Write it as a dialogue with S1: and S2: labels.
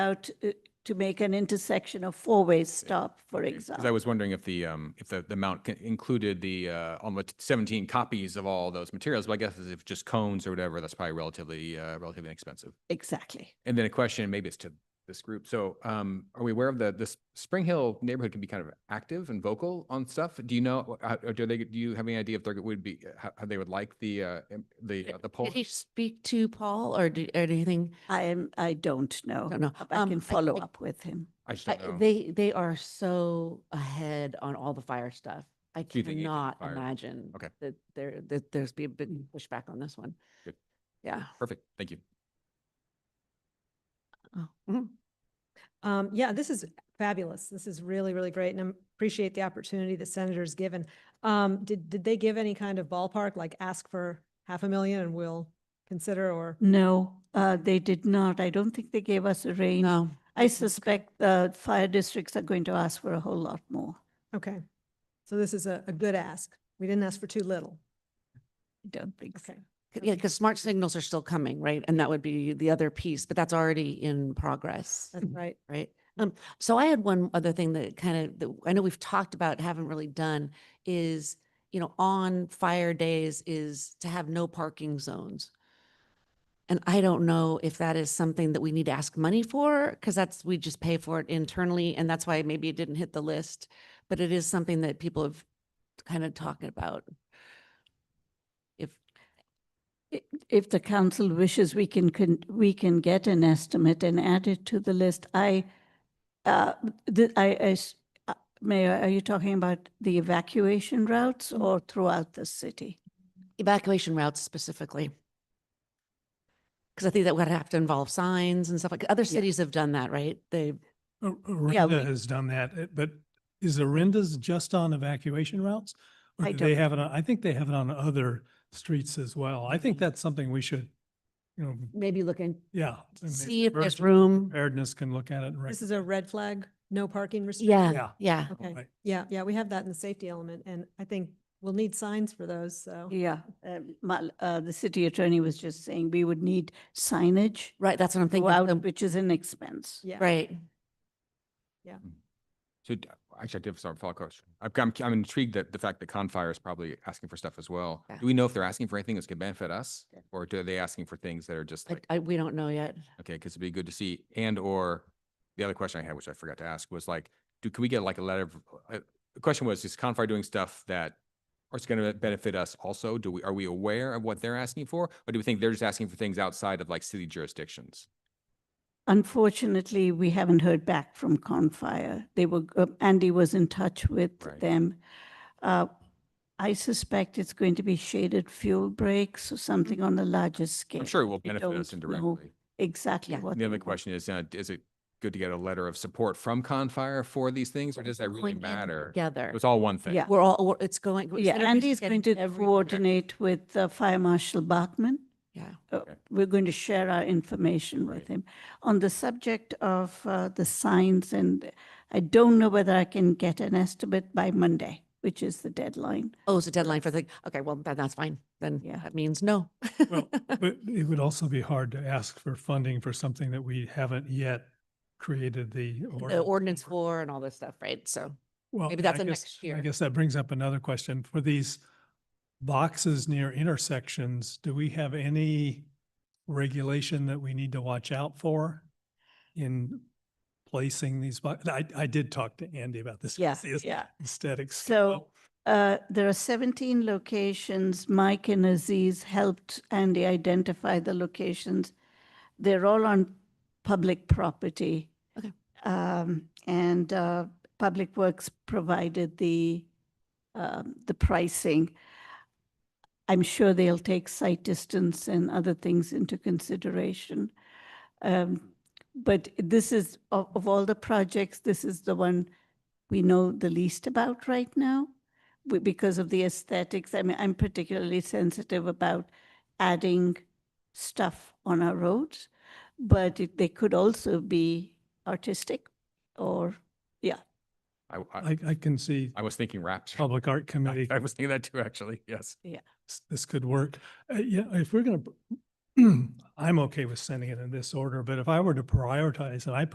S1: out uh, to make an intersection a four-way stop, for
S2: Because I
S1: example.
S2: was wondering if the, um, if the, the amount c- included the, uh, almost seventeen copies of all those materials, but I guess if just cones or whatever, that's probably relatively, uh, relatively inexpensive.
S1: Exactly.
S2: And then a question, maybe it's to this group. So, um, are we aware of the, this Spring Hill neighborhood can be kind of active and vocal on stuff? Do you know, uh, uh, do they, do you have any idea if there would be, uh, how, how they would like the, uh, im- the, uh, the poll?
S3: Did you speak to Paul or do, or anything?
S1: I am, I don't know.
S3: Don't know.
S1: but I
S3: Um,
S1: can
S3: I-
S1: follow
S3: I-
S1: up with him.
S2: I just
S3: I-
S1: uh,
S2: don't know.
S3: They, they are so ahead on all the fire stuff. I
S2: Do you think it could be
S3: cannot
S2: fire?
S3: imagine
S2: Okay.
S3: that there, that there's be a big pushback on this one.
S2: Good.
S3: Yeah.
S2: Perfect. Thank you.
S3: Oh, mhm.
S4: Um, yeah, this is fabulous. This is really, really great and I appreciate the opportunity that Senator's given. Um, did, did they give any kind of ballpark, like ask for half a million and we'll consider or?
S1: No, uh, they did not. I don't think they gave us a range.
S3: No.
S1: I suspect the fire districts are going to ask for a whole lot more.
S4: Okay. So this is a, a good ask. We didn't ask for too little.
S1: I don't think so.
S4: Okay.
S3: C- Yeah, because smart signals are still coming, right? And that would be the other piece, but that's already in progress,
S4: That's right.
S3: right? Um, so I had one other thing that kind of, that I know we've talked about, haven't really done, is, you know, on fire days is to have no parking zones. And I don't know if that is something that we need to ask money for, because that's, we just pay for it internally, and that's why maybe it didn't hit the list. But it is something that people have kind of talked about. If,
S1: I- If the council wishes, we can, con- we can get an estimate and add it to the list. I, uh, the, I, I s- uh, Mayor, are you talking about the evacuation routes or throughout the city?
S3: evacuation routes specifically. Because I think that would have to involve signs and stuff like, other cities have done that, right? They,
S5: O-
S1: Yeah,
S5: Orinda has done that, uh, but is Orinda's just on evacuation routes? Or
S1: I
S5: do they
S1: don't
S5: have it, on I think they have it on other streets as well. I think that's something we should, you know,
S3: maybe look and
S5: yeah. I mean,
S3: see if there's
S5: emergency
S3: room.
S5: Preparedness can look at it and.
S4: This is a red flag, no parking restriction.
S3: Yeah,
S5: Yeah.
S3: yeah.
S4: Okay.
S5: Right.
S4: Yeah, yeah, we have that in the safety element and I think we'll need signs for those, so.
S1: Yeah, uh, my, uh, the city attorney was just saying we would need signage
S3: Right, that's what I'm thinking.
S1: throughout,
S3: um,
S1: which is an expense.
S4: Yeah.
S3: Right.
S2: So d- actually, I did have some follow-up question. I'm, I'm- I'm intrigued that the fact that Confire is probably asking for stuff as well.
S3: Yeah.
S2: Do we know if they're asking for anything that's gonna benefit us?
S1: Yeah.
S2: Or do they asking for things that are just
S3: I,
S2: like,
S3: I, we don't know yet.
S2: okay, because it'd be good to see, and or the other question I had, which I forgot to ask, was like, do, can we get like a letter of, uh, the question was, is Confire doing stuff that or it's gonna benefit us also? Do we, are we aware of what they're asking for? Or do we think they're just asking for things outside of like city jurisdictions?
S1: Unfortunately, we haven't heard back from Confire. They were, uh, Andy was in touch with
S2: Right.
S1: them. Uh, I suspect it's going to be shaded fuel breaks or something on a larger scale.
S2: I'm sure it will
S1: We
S2: benefit us
S1: don't know
S2: indirectly.
S1: Exactly
S3: Yeah.
S1: what.
S2: The
S1: they
S2: other
S1: want.
S2: question is, uh, is it good to get a letter of support from Confire for these things, or does that really
S3: Going in
S2: matter?
S3: Together.
S2: It's all one thing.
S1: Yeah.
S3: We're all, we're- it's going.
S1: Yeah,
S3: instead of
S1: Andy
S3: just
S1: is going to
S3: getting every-
S1: coordinate with uh, Fire Marshal Bachman.
S3: Yeah.
S1: Uh,
S2: Okay.
S1: We're going to share our information with
S2: Right.
S1: him. On the subject of uh, the signs, and I don't know whether I can get an estimate by Monday, which is the deadline.
S3: Oh, it's a deadline for the, okay, well, then that's fine. Then
S1: Yeah.
S3: that means no.
S5: Well, But it would also be hard to ask for funding for something that we haven't yet created the.
S3: The ordinance for and all this stuff, right? So,
S5: Well,
S3: Maybe
S5: and
S3: that's
S5: I
S3: a
S5: guess-
S3: next year.
S5: I guess that brings up another question. For these boxes near intersections, do we have any regulation that we need to watch out for in placing these? bo- I, I did talk to Andy about this. 'cause the aes- Aesthetics.
S1: So- Uh, There are 17 locations. Mike and Aziz helped Andy identify the locations. They're all on public property.
S3: Okay.
S1: Um, And uh, Public Works provided the, um, the pricing. I'm sure they'll take site distance and other things into consideration. Um, But this is, of of all the projects, this is the one we know the least about right now w- because of the aesthetics. I mean, I'm particularly sensitive about adding stuff on our roads, but it, they could also be artistic or, yeah.
S2: I, I,
S5: I, I can see
S2: I was thinking wraps.
S5: Public Art
S2: I
S5: Committee,
S2: I was thinking that too, actually, yes.
S5: s- this could work. Uh, Yeah, if we're going to, I'm okay with sending it in this order, but if I were to prioritize, and I